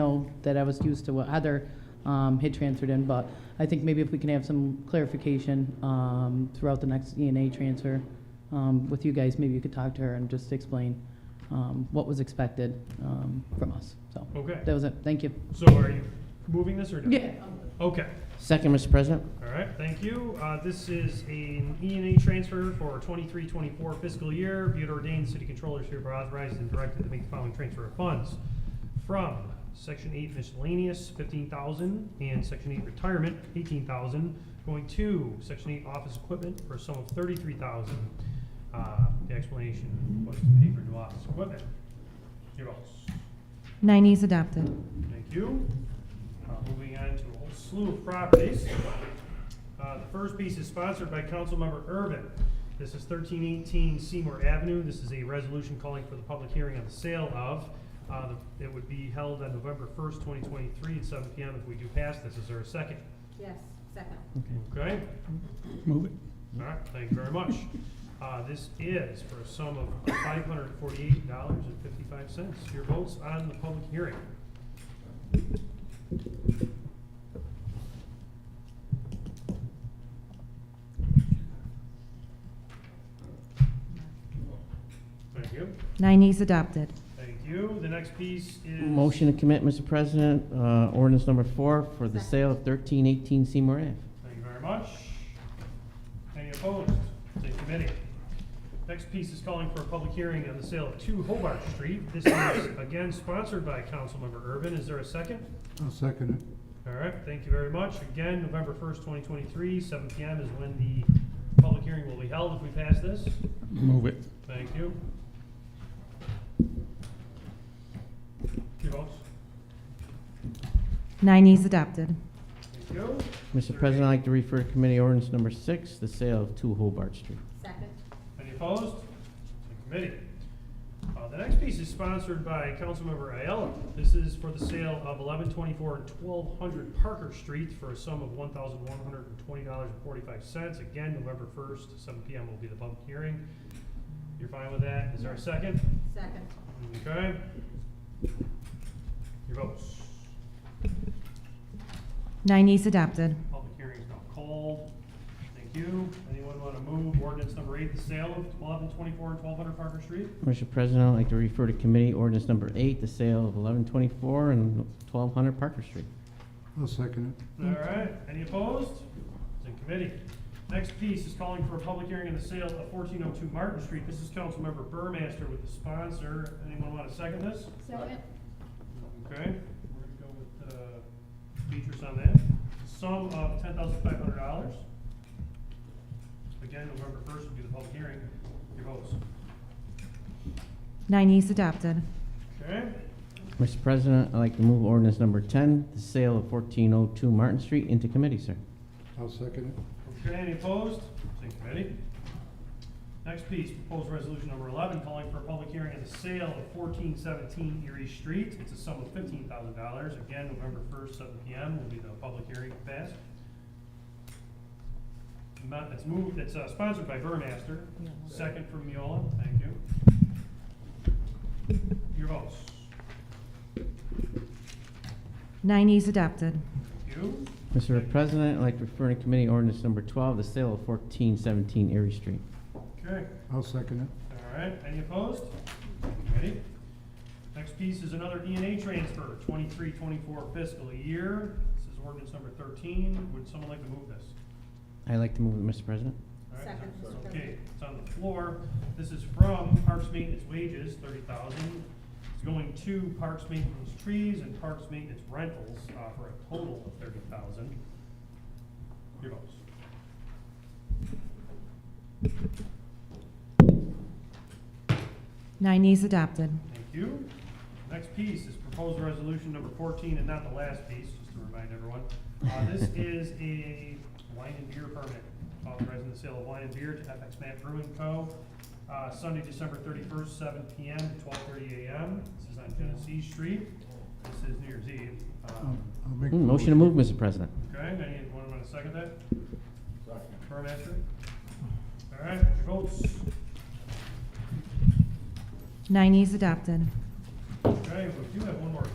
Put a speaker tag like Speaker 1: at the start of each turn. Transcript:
Speaker 1: know that I was used to what Heather um, had transferred in, but I think maybe if we can have some clarification um, throughout the next E and A transfer um, with you guys, maybe you could talk to her and just explain um, what was expected um, from us. So that
Speaker 2: Okay,
Speaker 1: was it. Thank you.
Speaker 2: so are you moving this or? no?
Speaker 1: Yeah.
Speaker 2: Okay,
Speaker 3: Second, Mr. President.
Speaker 2: all right, thank you. Uh, this is an E and A transfer for twenty-three, twenty-four fiscal year. Be it ordained, the city controller is hereby authorized and directed to make the following transfer of funds. From section eight miscellaneous, fifteen thousand, and section eight retirement, eighteen thousand, going to section eight office equipment for a sum of thirty-three thousand. Uh, the explanation was to pay for new office equipment. Your votes.
Speaker 4: Nine E's adopted.
Speaker 2: Thank you. Uh, Moving on to a whole slew of properties. Uh, The first piece is sponsored by Councilmember Urban. This is thirteen eighteen Seymour Avenue. This is a resolution calling for the public hearing on the sale of. uh, the- It would be held on November first, twenty twenty-three at seven PM if we do pass this. Is there a second?
Speaker 5: Yes, second.
Speaker 2: Okay,
Speaker 6: Move it.
Speaker 2: all right, thank you very much. Uh, This is for a sum of five hundred forty-eight dollars and fifty-five cents. Your votes on the public hearing. Thank you.
Speaker 4: Nine E's adopted.
Speaker 2: Thank you. The next piece is.
Speaker 3: Motion to commit, Mr. President, uh, ordinance number four for the
Speaker 5: Second.
Speaker 3: sale of thirteen eighteen Seymour Ave.
Speaker 2: Thank you very much. Any opposed? It's in committee. Next piece is calling for a public hearing on the sale of two Hobart Street. This is again sponsored by Councilmember Urban. Is there a second?
Speaker 6: I'll second it.
Speaker 2: All right, thank you very much. Again, November first, twenty twenty-three, seven P M is when the public hearing will be held if we pass this.
Speaker 6: Move it.
Speaker 2: Thank you. Your votes?
Speaker 4: Nine E's adopted.
Speaker 2: Thank you.
Speaker 3: Mr. President, I'd like to refer to committee ordinance number six, the sale of two Hobart Street.
Speaker 5: Second.
Speaker 2: Any opposed? It's in committee. Uh, the next piece is sponsored by Councilmember Ayala. This is for the sale of eleven twenty-four and twelve hundred Parker Street for a sum of one thousand one hundred and twenty dollars and forty-five cents. Again, November first, seven P M will be the public hearing. You're fine with that? Is there a second?
Speaker 5: Second.
Speaker 2: Okay. Your votes.
Speaker 4: Nine E's adopted.
Speaker 2: Public hearing is now called. Thank you. Anyone want to move ordinance number eight, the sale of eleven twenty-four and twelve hundred Parker Street?
Speaker 3: Mr. President, I'd like to refer to committee ordinance number eight, the sale of eleven twenty-four and twelve hundred Parker Street.
Speaker 6: I'll second it.
Speaker 2: All right, any opposed? It's in committee. Next piece is calling for a public hearing on the sale of fourteen oh two Martin Street. This is Councilmember Burmaster with the sponsor. Anyone want to second this?
Speaker 5: Second.
Speaker 2: Okay, we're gonna go with, uh, features on that. Sum of ten thousand five hundred dollars. Again, November first will be the public hearing. Your votes.
Speaker 4: Nine E's adopted.
Speaker 2: Okay,
Speaker 3: Mr. President, I'd like to move ordinance number ten, the sale of fourteen oh two Martin Street into committee, sir.
Speaker 6: I'll second
Speaker 2: okay, any opposed? It's in committee. Next piece, proposed resolution number eleven, calling for a public hearing on the sale of fourteen seventeen Erie Street. It's a sum of fifteen thousand dollars. Again, November first, seven P M will be the public hearing passed. Amount that's moved, that's uh, sponsored by Burmaster, second from Miola, thank you. Your votes.
Speaker 4: Nine E's adopted.
Speaker 2: Thank you.
Speaker 3: Mr. President, I'd like to refer to committee ordinance number twelve, the sale of fourteen seventeen Erie Street.
Speaker 2: Okay.
Speaker 6: it. I'll second it.
Speaker 2: All right, any opposed? Ready? Next piece is another E and A transfer, twenty-three, twenty-four fiscal year. This is ordinance number thirteen. Would someone like to move this?
Speaker 3: I'd like to move it, Mr. President.
Speaker 2: All right,
Speaker 5: Second,
Speaker 2: it's
Speaker 5: Mr.
Speaker 2: Okay,
Speaker 5: President.
Speaker 2: it's on the floor. This is from Parks Maintenance Wages, thirty thousand. It's going to Parks Maintenance Trees and Parks Maintenance Rentals, uh, for a total of thirty thousand. Your votes.
Speaker 4: Nine E's adopted.
Speaker 2: Thank you. Next piece is proposed resolution number fourteen, and not the last piece, just to remind everyone. Uh, this is a wine and beer permit, authorizing the sale of wine and beer to FX Matt Brewing Co. Uh, Sunday, December thirty-first, seven P M. to twelve thirty A M. This is on Genesee Street. This is New Year's Eve.
Speaker 6: I'll-
Speaker 2: Um,
Speaker 6: I'll make. the
Speaker 3: Mm, Motion to move, Mr. President.
Speaker 2: Okay, anyone want to second that? Second. Burmaster? All right, your votes.
Speaker 4: Nine E's adopted.
Speaker 2: Okay, we do have one more